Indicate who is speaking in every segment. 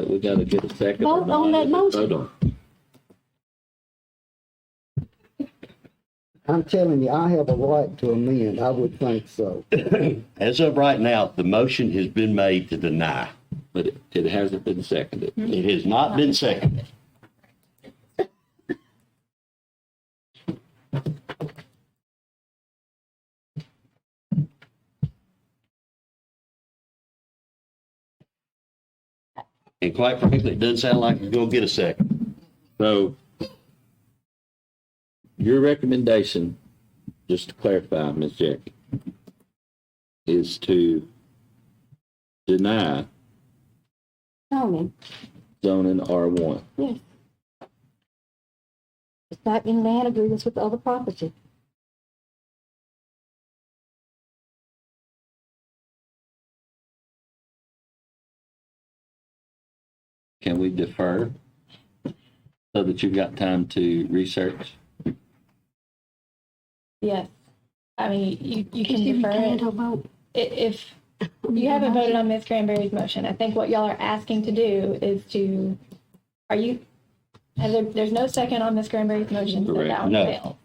Speaker 1: But we gotta get a second. or
Speaker 2: Vote
Speaker 1: not,
Speaker 2: on that
Speaker 1: and
Speaker 2: motion.
Speaker 1: vote on
Speaker 3: I'm telling you, I have a right to amend. I would think so.
Speaker 4: As of right now, the motion has been made to deny. Hmm?
Speaker 1: it. But it- it hasn't been seconded.
Speaker 4: It has not been seconded. And quite frankly, it doesn't sound like it's gonna get a second.
Speaker 1: So your recommendation, just to clarify, Ms. Jackie, is to deny
Speaker 2: zoning,
Speaker 1: zoning R1.
Speaker 2: yes. It's not in land agreements with other property.
Speaker 1: Can we defer so that you've got time to research?
Speaker 5: Yes. I mean, you, you can defer it
Speaker 2: Candle vote.
Speaker 5: I- if you haven't voted on Ms. Cranberry's motion. I think what y'all are asking to do is to, are you, and there, there's no second on Ms. Cranberry's motion, so
Speaker 1: Correct.
Speaker 5: that one
Speaker 4: No.
Speaker 5: failed.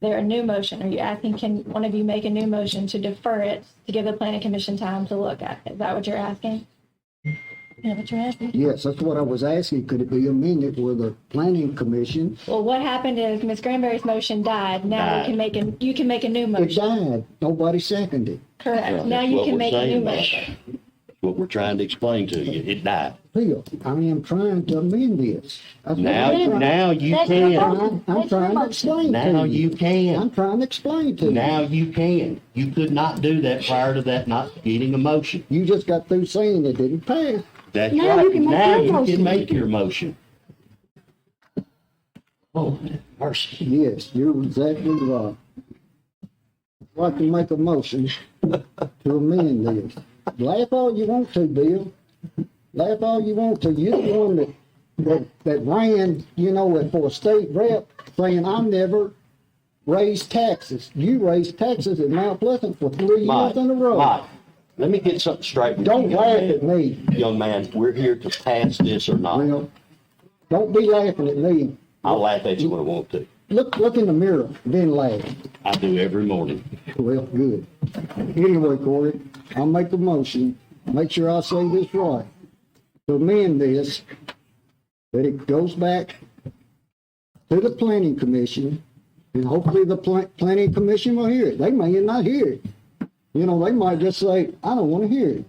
Speaker 5: There, a new motion, are you asking, can one of you make a new motion to defer it to give the planning commission time to look at it? Is that what you're asking? Yeah, what you're asking.
Speaker 3: Yes, that's what I was asking. Could it be amended with a planning commission?
Speaker 5: Well, what happened is Ms. Granberry's motion died. Now you
Speaker 4: Died.
Speaker 5: can make, a you can make a new
Speaker 3: It
Speaker 5: motion.
Speaker 3: died. Nobody seconded.
Speaker 5: Correct. Now
Speaker 4: That's
Speaker 5: you
Speaker 4: what
Speaker 5: can
Speaker 4: we're
Speaker 5: make a new
Speaker 4: saying, though.
Speaker 5: motion.
Speaker 4: That's What we're trying to explain to you, it died.
Speaker 3: Phil, I am trying to amend this. That's what
Speaker 4: Now,
Speaker 3: I'm trying-
Speaker 4: now you
Speaker 2: That's your
Speaker 4: can.
Speaker 2: vote.
Speaker 3: I'm I'm trying to explain
Speaker 4: Now
Speaker 3: to
Speaker 4: you
Speaker 3: you. I'm
Speaker 4: can.
Speaker 3: trying to explain to you.
Speaker 4: Now you can. You could not do that prior to that not getting a motion.
Speaker 3: You just got through saying it didn't pass.
Speaker 4: That's
Speaker 2: Now
Speaker 4: right.
Speaker 2: you can make
Speaker 4: now
Speaker 2: your
Speaker 4: you
Speaker 2: motion.
Speaker 4: can make your motion. Oh, mercy.
Speaker 3: Yes, you're exactly right. I'd like to make a motion to amend this. Laugh all you want to, Bill. Laugh all you want to. You're the one that, that, that ran, you know, for a state rep saying, I never raised taxes. You raised taxes in Mount Pleasant for three
Speaker 4: Mike,
Speaker 3: years in a row.
Speaker 4: Mike, let me get something straight. with you,
Speaker 3: Don't
Speaker 4: young
Speaker 3: laugh
Speaker 4: man.
Speaker 3: at me.
Speaker 4: Young man, we're here to pass this or not.
Speaker 3: Well, don't be laughing at me.
Speaker 4: I'll laugh at you when I want to.
Speaker 3: Look, look in the mirror, then laugh.
Speaker 4: I do every morning.
Speaker 3: Well, good. Anyway, Corey, I'll make a motion, make sure I say this right. To amend this, that it goes back to the planning commission, and hopefully the pla- planning commission will hear it. They may not hear it. You know, they might just say, I don't want to hear it.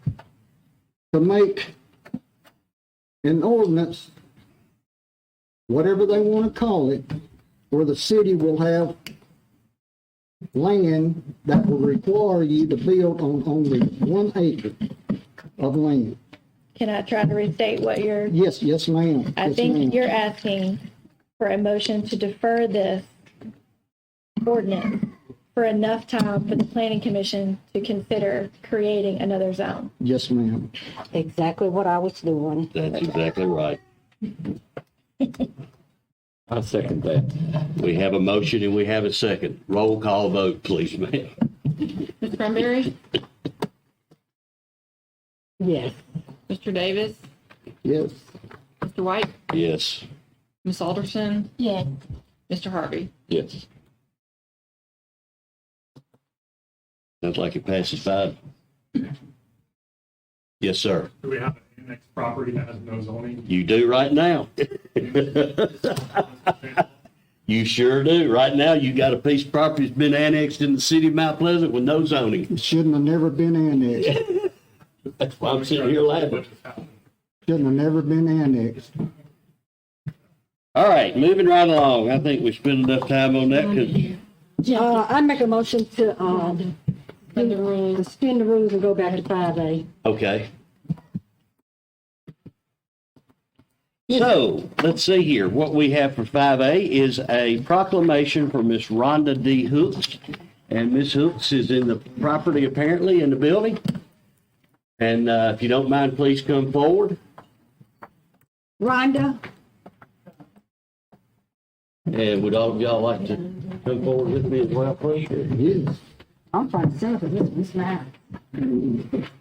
Speaker 3: To make an ordinance, whatever they want to call it, where the city will have land that will require you to build on only one acre of land.
Speaker 5: Can I try to restate what you're,
Speaker 3: Yes, yes, ma'am.
Speaker 5: I
Speaker 3: Yes, ma'am.
Speaker 5: think you're asking for a motion to defer this ordinance for enough time for the planning commission to consider creating another zone.
Speaker 3: Yes, ma'am.
Speaker 2: Exactly what I was doing.
Speaker 4: That's exactly right.
Speaker 1: I second that.
Speaker 4: We have a motion and we have a second. Roll call vote, please, ma'am.
Speaker 6: Ms. Cranberry,
Speaker 2: Yes.
Speaker 6: Mr. Davis,
Speaker 3: Yes.
Speaker 6: Mr. White,
Speaker 4: Yes.
Speaker 6: Ms. Alderson,
Speaker 2: Yes.
Speaker 6: Mr. Harvey.
Speaker 1: Yes.
Speaker 4: Sounds like it passes five. Yes, sir.
Speaker 7: Do we have an annex property that has no zoning?
Speaker 4: You do right now. You sure do. Right now, you got a piece of property that's been annexed in the city of Mount Pleasant with no zoning.
Speaker 3: It shouldn't have never been annexed.
Speaker 4: That's why I'm sitting here laughing.
Speaker 3: Shouldn't have never been annexed.
Speaker 4: All right, moving right along. I think we spent enough time on that because
Speaker 2: Uh, I make a motion to, um,
Speaker 6: Under rules.
Speaker 2: suspend the rules and go back to five A.
Speaker 4: Okay. So, let's see here. What we have for 5A is a proclamation for Miss Rhonda D. Hooks. And Miss Hooks is in the property apparently in the building. And uh, if you don't mind, please come forward.
Speaker 2: Rhonda?
Speaker 4: And would all of y'all like to come forward with me as well, please?
Speaker 3: Yes.
Speaker 2: I'm trying to sell it, this, this man.